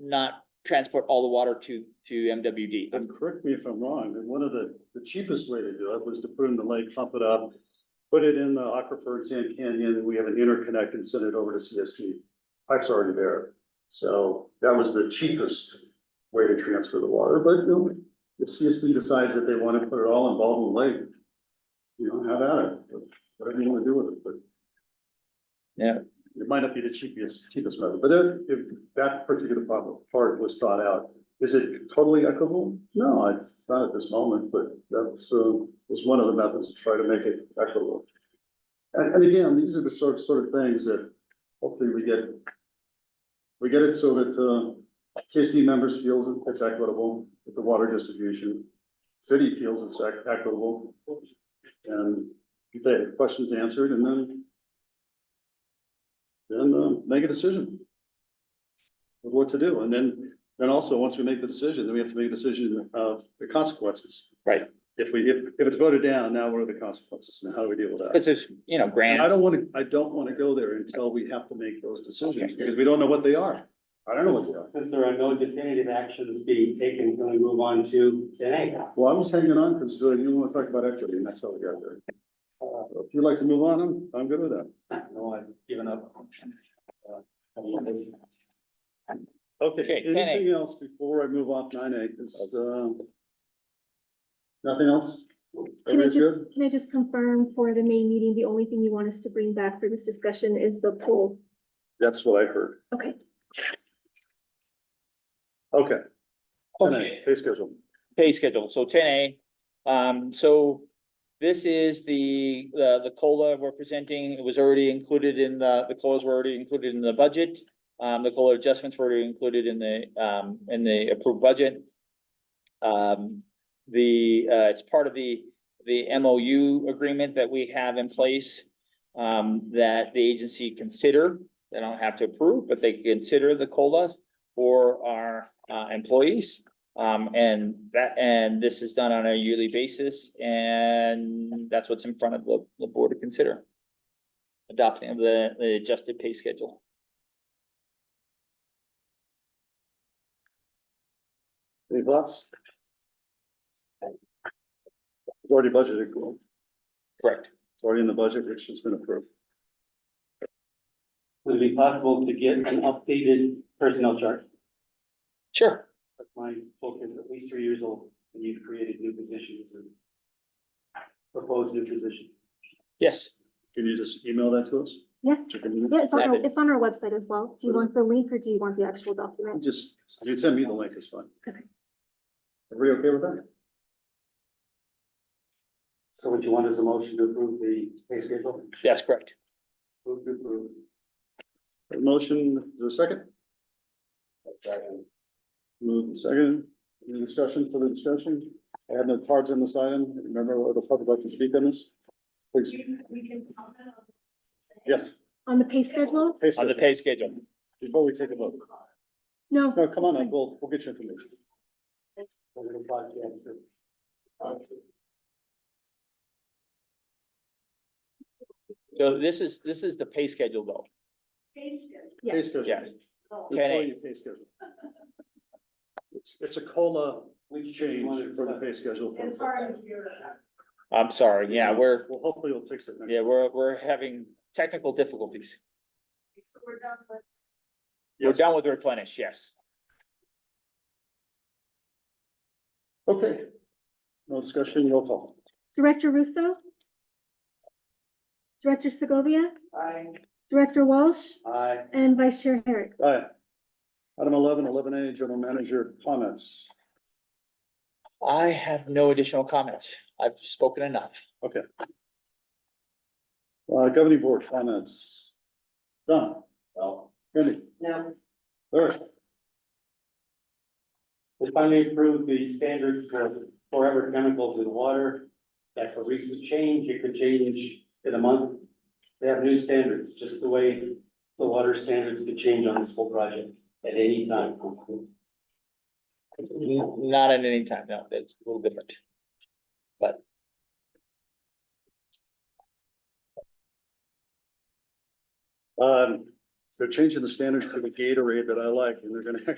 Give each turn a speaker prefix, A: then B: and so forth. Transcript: A: not transport all the water to, to MWD.
B: And correct me if I'm wrong, and one of the, the cheapest way to do it was to put it in the lake, pump it up, put it in the aquifer in Sand Canyon, we have an interconnect and send it over to CSC. Pipe's already there, so that was the cheapest way to transfer the water, but no, if CSC decides that they want to put it all in Baldwin Lake, you know, have at it, but whatever you want to do with it, but.
A: Yeah.
B: It might not be the cheapest, cheapest method, but if, if that particular part- part was thought out, is it totally equitable? No, it's not at this moment, but that's, uh, was one of the methods to try to make it equitable. And, and again, these are the sort, sort of things that hopefully we get, we get it so that, uh, KC members feels it's equitable with the water distribution. City feels it's ec- equitable. And get the questions answered and then then, um, make a decision of what to do. And then and also, once we make the decision, then we have to make a decision of the consequences.
A: Right.
B: If we, if, if it's voted down, now what are the consequences and how do we deal with that?
A: Cause there's, you know,
B: And I
A: grants,
B: don't wanna, I don't wanna go there until we have to make those decisions,
A: Okay.
B: because we don't know what they are. I don't know what they are.
C: Since since there are no definitive actions being taken, can we move on to ten A?
B: Well, I was hanging on, because you wanna talk about equity, and that's how we got there. So If you'd like to move on, I'm, I'm good with that.
C: Uh, No, I've given up. Uh, I mean, it's-
B: Okay,
A: Okay, 10A.
B: anything else before I move off nine A, Is, uh, nothing else?
D: Can I
B: Everybody's good?
D: just, can I just confirm for the main meeting, the only thing you want us to bring back for this discussion is the poll?
B: That's what I heard.
D: Okay.
B: Okay.
A: Okay.
B: Pay schedule.
A: pay schedule, so ten A. Um, so this is the, the, the COLA we're presenting, it was already included in the, the COLAs were already included in the budget. Um, the COLA adjustments were already included in the, um, in the approved budget. Um, the, uh, it's part of the, the MOU agreement that we have in place um, that the agency consider, they don't have to approve, but they consider the COLAs for our, uh, employees. Um, and that, and this is done on a yearly basis, and that's what's in front of the, the board to consider. Adopting of the, the adjusted pay schedule.
B: Any thoughts? It's Already budgeted, cool.
A: Correct.
B: It's already in the budget, which has been approved.
C: Would it be possible to get an updated personnel chart?
A: Sure.
C: That's my book is at least three years old, and you've created new positions and proposed new positions.
A: Yes,
B: Can you just email that to us?
D: Yes, yeah, it's on, our-
A: Rabbit.
D: it's on our website as well. Do you want the link or do you want the actual document?
B: Just, you can send me the link, it's fine.
D: Okay.
B: Everybody okay with that?
C: So what you want is a motion to approve the pay schedule?
A: that's correct.
C: Move to approve.
B: A Motion, is there a second? Move and second, any discussion, further discussion? I have no cards on this item, remember, the public like to speak on this? Please, yes.
D: On the pay schedule?
B: Hey,
A: On the
B: sir,
A: pay schedule.
B: Before we take a vote.
D: No.
B: No, come on up, we'll, we'll get your information.
C: We're gonna apply to that.
A: So this is, this is the pay schedule though.
B: Pay
D: Yes.
B: schedule.
A: Yes.
B: It's
A: Ten A.
B: only a pay schedule. It's, it's a COLA
C: Which
B: change for the pay schedule.
A: I'm sorry, yeah, we're,
B: Well, hopefully we'll fix it. next-
A: yeah, we're, we're having technical difficulties. We're
B: Yes.
A: done with replenish, yes.
B: Okay. No discussion, roll call.
D: Director Russo? Director Segovia? Director Walsh
C: Aye.
D: and Vice Chair Herrick?
B: Aye. Item 11, 11 A, general manager comments.
A: I have no additional comments. I've spoken enough.
B: Uh, governing board comments. Done.
C: Well.
B: Randy,
C: Now,
B: Larry,
C: we finally approved the standards for forever chemicals in water. That's a recent change. It could change in a month. They have new standards, just the way the water standards could change on this whole project at any time.
A: N- Not at any time, no, that's a little different.
B: um, they're changing the standards to the Gatorade that I like, and they're gonna